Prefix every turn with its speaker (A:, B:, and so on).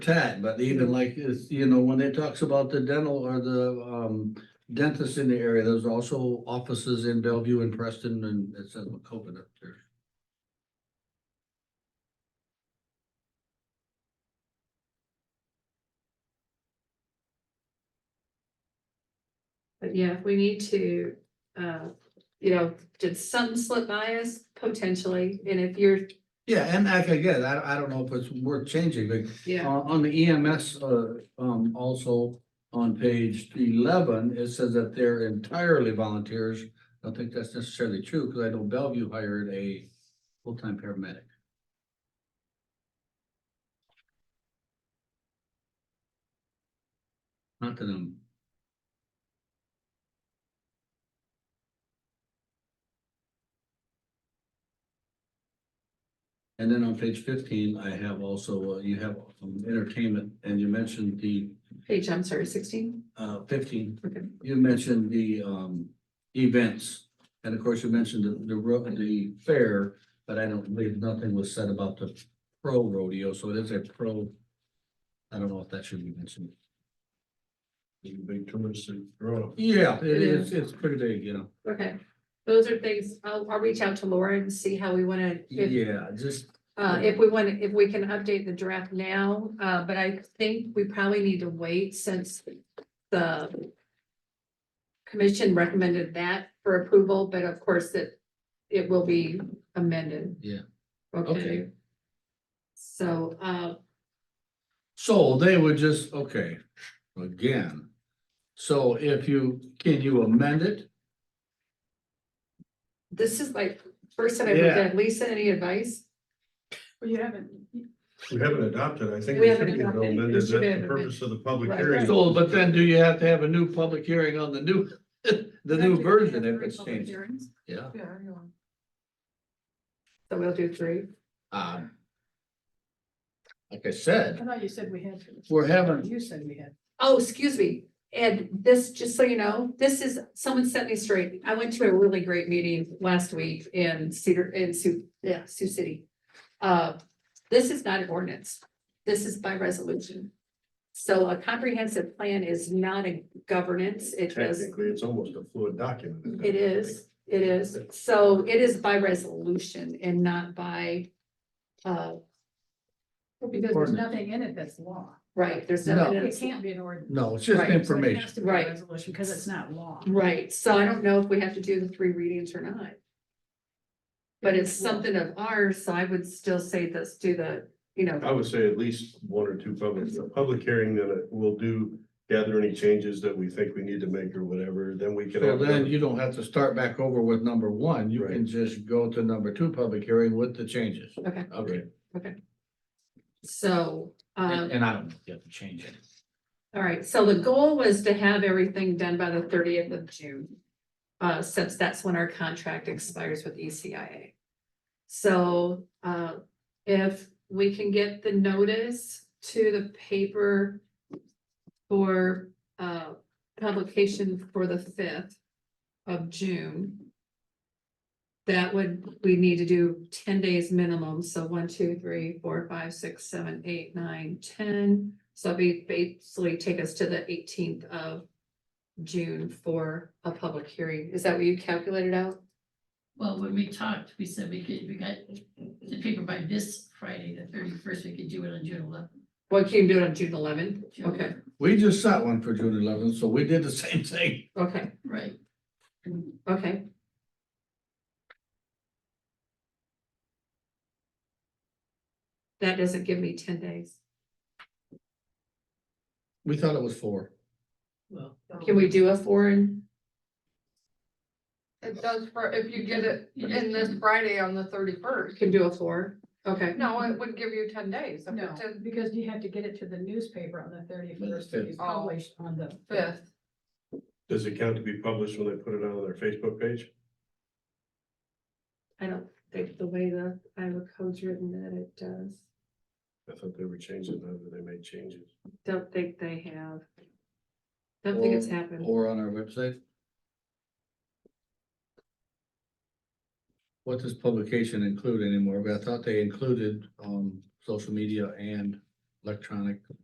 A: tad, but even like, is, you know, when it talks about the dental or the, um, dentist in the area, there's also offices in Bellevue and Preston and it says McCoven up there.
B: But yeah, if we need to, uh, you know, did something slip by us potentially? And if you're,
A: Yeah, and like, again, I, I don't know if it's worth changing, but
B: yeah,
A: Uh, On, on the EMS, uh, um, also on page eleven, it says that they're entirely volunteers. I don't think that's necessarily true, because I know Bellevue hired a full-time paramedic. Not that I'm. And then on page fifteen, I have also, uh, you have um, entertainment, and you mentioned the
B: page, I'm sorry, sixteen?
A: uh, fifteen,
B: Okay.
A: you mentioned the, um, events. And of course, you mentioned the, the ro- the fair, but I don't believe nothing was said about the pro rodeo, so it is a pro. I don't know if that should be mentioned.
C: Big touristy road.
A: Yeah, it
B: It
A: is,
B: is.
A: it's pretty big, you know.
B: Okay, those are things, I'll, I'll reach out to Laura and see how we wanna, if,
A: Yeah, just,
B: uh, if we want, if we can update the draft now. Uh, but I think we probably need to wait since the commission recommended that for approval, but of course it, it will be amended.
A: Yeah.
B: Okay.
A: Okay.
B: So, uh,
A: so they would just, okay, again. So if you, can you amend it?
B: This is like, first time I've looked at, it. Lisa, any advice?
D: Well, you haven't,
C: We haven't adopted, I
B: We
C: think. we
B: haven't
C: should get
B: adopted,
C: amended.
B: it
C: That's
B: should have
C: the
B: been-
C: purpose of the public
B: Right.
C: hearing.
A: So, but then do you have to have a new public hearing on the new, the new version if it's changed? Yeah.
D: Yeah, hang on.
B: So we'll do three.
A: Um. Like I said,
D: I thought you said we had. to.
A: We're having-
D: You said we had.
B: Oh, excuse me. And this, just so you know, this is, someone set me straight. I went to a really great meeting last week in Cedar, in Sioux, yeah, Sioux City. Uh, this is not an ordinance. This is by resolution. So a comprehensive plan is not a governance. It is
C: Technically, it's almost a fluid document.
B: It is, it is. So it is by resolution and not by, uh,
D: Because there's
A: Ordinance.
D: nothing in it that's law.
B: right, there's
A: No.
B: no.
D: It can't be an ordinance.
A: no, it's just
B: Right, so
D: So it
A: information.
D: has to be a
B: Right.
D: Resolution, because it's not law.
B: Right, so I don't know if we have to do the three readings or not. But it's something of ours, so I would still say this, do the, you know,
C: I would say at least one or two public, a public hearing that we'll do, gather any changes that we think we need to make or whatever, then we can.
A: So
C: have
A: then
C: another-
A: you don't have to start back over with number one, you can
C: Right.
A: just go to number two public hearing with the changes.
B: Okay.
A: Okay,
B: so, um,
A: and and I don't know if you have to change it.
B: all right, so the goal was to have everything done by the thirtieth of June. Uh, since that's when our contract expires with E ECIA. So, uh, if we can get the notice to the paper for, uh, publication for the fifth of June, that would, we need to do ten days minimum, so one, two, three, four, five, six, seven, eight, nine, ten. So it'd be basically take us to the eighteenth of June for a public hearing. Is that what you calculated out?
E: Well, when we talked, we said we could, we got the paper by this Friday, the thirty-first, we could do it on June eleventh.
B: Well, can you do it on June eleventh? Okay,
A: We just set one for June eleventh, so we did the same thing.
B: okay,
E: Right. And
B: okay. That doesn't give me ten days.
A: We thought it was four.
E: Well,
B: Can we do a foreign?
F: It does for, if you did it
E: You
F: in this
E: just-
F: Friday on the thirty-first,
B: Can do a four? Okay,
F: no, it would give you ten days, if
D: No,
F: it's in
D: because you have to get it to the newspaper on the thirty-first,
A: Fifth.
D: it's published on the fifth.
F: fifth.
C: Does it count to be published when they put it on their Facebook page?
B: I don't think the way the Iowa code's written that it does,
C: I thought they were changing, that, but they made changes.
B: don't think they have. Don't think it's happened.
A: Or on our website. What does publication include anymore? But I thought they included, um, social media and electronic